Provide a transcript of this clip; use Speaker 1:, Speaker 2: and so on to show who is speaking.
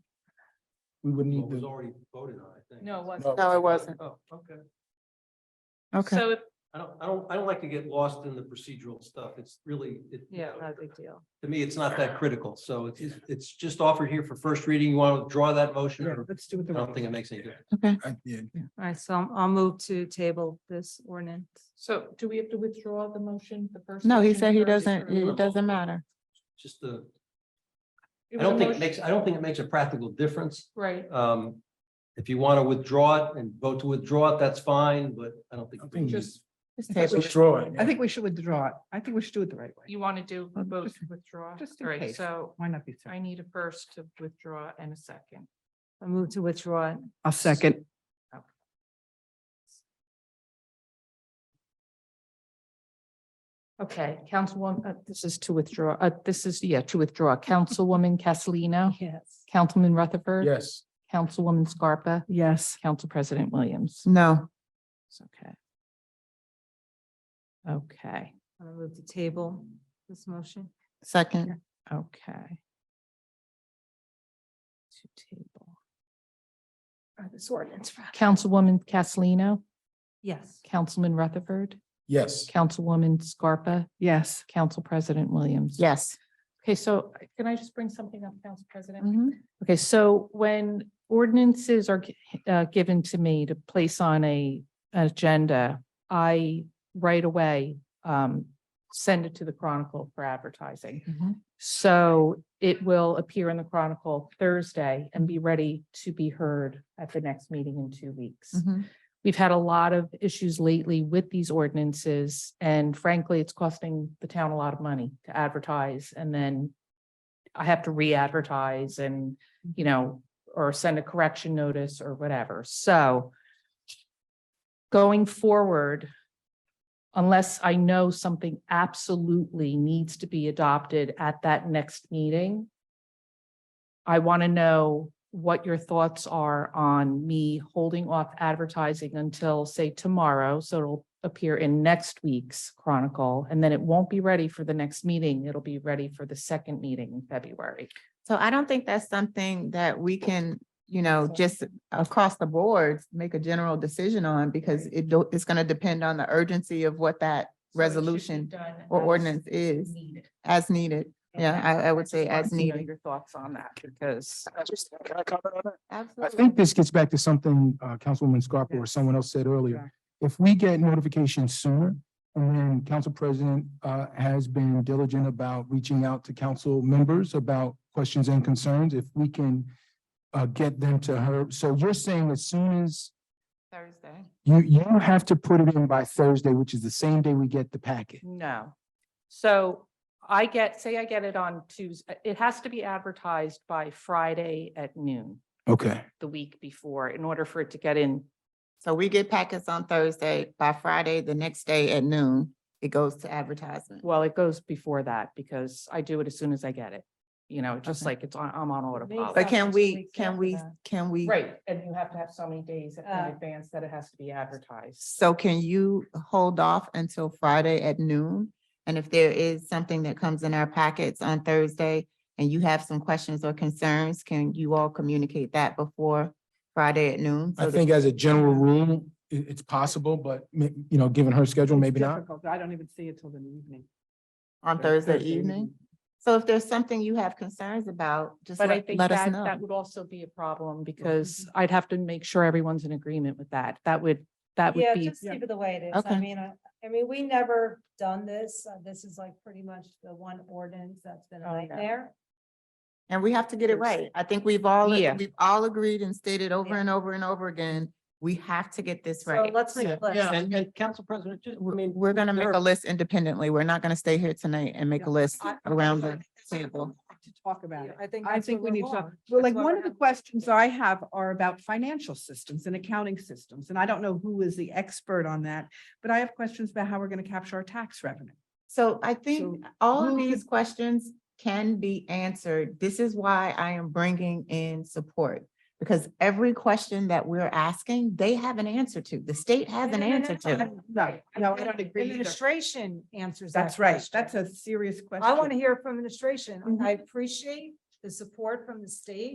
Speaker 1: we would
Speaker 2: Well,
Speaker 1: need
Speaker 2: it was
Speaker 1: to,
Speaker 2: already voted on, I think.
Speaker 3: No, it
Speaker 1: No.
Speaker 3: wasn't.
Speaker 4: No, it wasn't.
Speaker 2: Oh, okay.
Speaker 4: Okay.
Speaker 3: So,
Speaker 2: I don't, I don't, I don't like to get lost in the procedural stuff. It's really, it. you
Speaker 3: yeah,
Speaker 2: know,
Speaker 3: not a big deal.
Speaker 2: To me, it's not that critical. So it's, it's- it's just offered here for first reading. You want to withdraw that motion? or-
Speaker 3: Let's do it.
Speaker 2: I don't think it makes any difference.
Speaker 4: Okay.
Speaker 1: I- yeah,
Speaker 3: All right, so I'll- I'll move to table this ordinance.
Speaker 5: So do we have to withdraw the motion, the first?
Speaker 4: No, he
Speaker 5: motion
Speaker 4: said he
Speaker 5: first?
Speaker 4: doesn't, it
Speaker 2: removal.
Speaker 4: doesn't matter.
Speaker 2: Just the,
Speaker 5: It
Speaker 2: I
Speaker 5: was a
Speaker 2: don't think it
Speaker 5: motion-
Speaker 2: makes, I don't think it makes a practical difference.
Speaker 5: Right,
Speaker 2: Um, if you want to withdraw it and vote to withdraw it, that's fine, but I don't think.
Speaker 1: I think
Speaker 5: just,
Speaker 4: Just
Speaker 1: Let's
Speaker 4: table it.
Speaker 1: withdraw it.
Speaker 6: I think we should withdraw it. I think we should do it the right way.
Speaker 5: you want to do
Speaker 4: Well,
Speaker 5: both
Speaker 4: just-
Speaker 5: withdraw?
Speaker 6: just in
Speaker 5: All right,
Speaker 6: case.
Speaker 5: so
Speaker 6: Why not be?
Speaker 5: I need a first to withdraw and a second.
Speaker 3: I move to withdraw it.
Speaker 6: A second.
Speaker 5: Okay, Councilwoman, uh, this is to withdraw, uh, this is, yeah, to withdraw. Councilwoman Castellino,
Speaker 3: Yes.
Speaker 5: Councilman Rutherford.
Speaker 1: Yes,
Speaker 5: Councilwoman Scarpa,
Speaker 6: Yes.
Speaker 5: Council President Williams.
Speaker 4: No,
Speaker 5: It's okay. Okay,
Speaker 3: I move to table this motion.
Speaker 4: second,
Speaker 5: okay. To table.
Speaker 3: This ordinance.
Speaker 5: Councilwoman Castellino,
Speaker 3: Yes.
Speaker 5: Councilman Rutherford,
Speaker 1: yes.
Speaker 5: Councilwoman Scarpa,
Speaker 6: Yes.
Speaker 5: Council President Williams.
Speaker 4: yes.
Speaker 5: Okay, so uh, can I just bring something up, Council President?
Speaker 4: Mhm.
Speaker 5: Okay, so when ordinances are gi- uh, given to me to place on a an agenda, I right away um, send it to the Chronicle for advertising.
Speaker 4: Mhm.
Speaker 5: So it will appear in the Chronicle Thursday and be ready to be heard at the next meeting in two weeks.
Speaker 4: Mhm.
Speaker 5: We've had a lot of issues lately with these ordinances, and frankly, it's costing the town a lot of money to advertise, and then I have to re-advertise and, you know, or send a correction notice or whatever, so going forward, unless I know something absolutely needs to be adopted at that next meeting, I want to know what your thoughts are on me holding off advertising until, say, tomorrow. So it'll appear in next week's Chronicle, and then it won't be ready for the next meeting. It'll be ready for the second meeting in February.
Speaker 4: So I don't think that's something that we can, you know, just across the board, make a general decision on because it, do- it's going to depend on the urgency of what that resolution or ordinance is as needed. Yeah, I, I would say as needed.
Speaker 5: Your thoughts on that, because.
Speaker 1: Can I comment on that? I
Speaker 4: Absolutely.
Speaker 1: think this gets back to something uh Councilwoman Scarpa or
Speaker 6: Yes.
Speaker 1: someone else said earlier. If we get notification sooner, and then Council President uh has been diligent about reaching out to council members about questions and concerns, if we can uh get them to her, so you're saying as soon as
Speaker 4: Thursday.
Speaker 1: you you have to put it in by Thursday, which is the same day we get the packet.
Speaker 5: No. So I get, say I get it on Tuesday, it has to be advertised by Friday at noon,
Speaker 1: Okay.
Speaker 5: the week before, in order for it to get in.
Speaker 4: So we get packets on Thursday. By Friday, the next day at noon, it goes to advertisement.
Speaker 5: Well, it goes before that because I do it as soon as I get it. You know, just
Speaker 4: Okay.
Speaker 5: like it's on, I'm on
Speaker 4: But
Speaker 5: autopilot.
Speaker 3: sense.
Speaker 4: can
Speaker 3: Two
Speaker 4: we,
Speaker 3: weeks
Speaker 4: can
Speaker 3: after
Speaker 4: we,
Speaker 3: that.
Speaker 4: can we?
Speaker 5: Right, and you have to have so many days in
Speaker 3: Uh,
Speaker 5: advance that it has to be advertised.
Speaker 4: So can you hold off until Friday at noon? And if there is something that comes in our packets on Thursday and you have some questions or concerns, can you all communicate that before Friday at noon?
Speaker 1: I
Speaker 4: So that-
Speaker 1: think as a general rule, i- it's possible, but ma- you know, given her schedule, maybe not.
Speaker 6: Difficult. I don't even see it till the evening.
Speaker 4: On Thursday evening? So if there's something you have concerns about, just
Speaker 5: But uh, I
Speaker 4: let
Speaker 5: think
Speaker 4: let us
Speaker 5: that,
Speaker 4: know.
Speaker 5: that would also be a problem because
Speaker 6: Mm-hmm.
Speaker 5: I'd have to make sure everyone's in agreement with that. That would, that would
Speaker 3: Yeah,
Speaker 5: be.
Speaker 3: just keep it the way it is.
Speaker 4: Okay.
Speaker 3: I mean, I, I mean, we never done this. Uh, This is like pretty much the one ordinance that's been a
Speaker 5: Oh, no.
Speaker 3: nightmare.
Speaker 4: And we have to get it right. I think we've all,
Speaker 5: Yeah.
Speaker 4: we've all agreed and stated over
Speaker 3: Yeah.
Speaker 4: and over and over again, we have to get this
Speaker 3: So
Speaker 4: right.
Speaker 3: let's make a list.
Speaker 2: And, and Council President, just, I
Speaker 4: We're,
Speaker 2: mean,
Speaker 4: we're gonna make
Speaker 2: there
Speaker 4: a
Speaker 2: are-
Speaker 4: list independently. We're not gonna stay here tonight and make a list
Speaker 6: I-
Speaker 4: around the
Speaker 6: I think
Speaker 4: table.
Speaker 6: To talk about it.
Speaker 3: I think.
Speaker 6: I
Speaker 3: that's
Speaker 6: think
Speaker 3: where
Speaker 6: we need
Speaker 3: we're
Speaker 6: to,
Speaker 3: wrong.
Speaker 6: well, like,
Speaker 3: That's why
Speaker 6: one
Speaker 3: we're
Speaker 6: of the
Speaker 3: having-
Speaker 6: questions I have are about financial systems and accounting systems, and I don't know who is the expert on that, but I have questions about how we're going to capture our tax revenue.
Speaker 4: So I think
Speaker 6: So
Speaker 4: all of
Speaker 6: who-
Speaker 4: these questions can be answered. This is why I am bringing in support. Because every question that we're asking, they have an answer to. The state has
Speaker 3: No,
Speaker 4: an
Speaker 3: no, no,
Speaker 4: answer
Speaker 3: no,
Speaker 4: to.
Speaker 6: No, no, I don't agree. either.
Speaker 3: Administration answers. that
Speaker 6: That's right.
Speaker 3: question.
Speaker 6: That's a serious question.
Speaker 3: I want to hear from administration.
Speaker 6: Mhm.
Speaker 3: I appreciate the support from the state.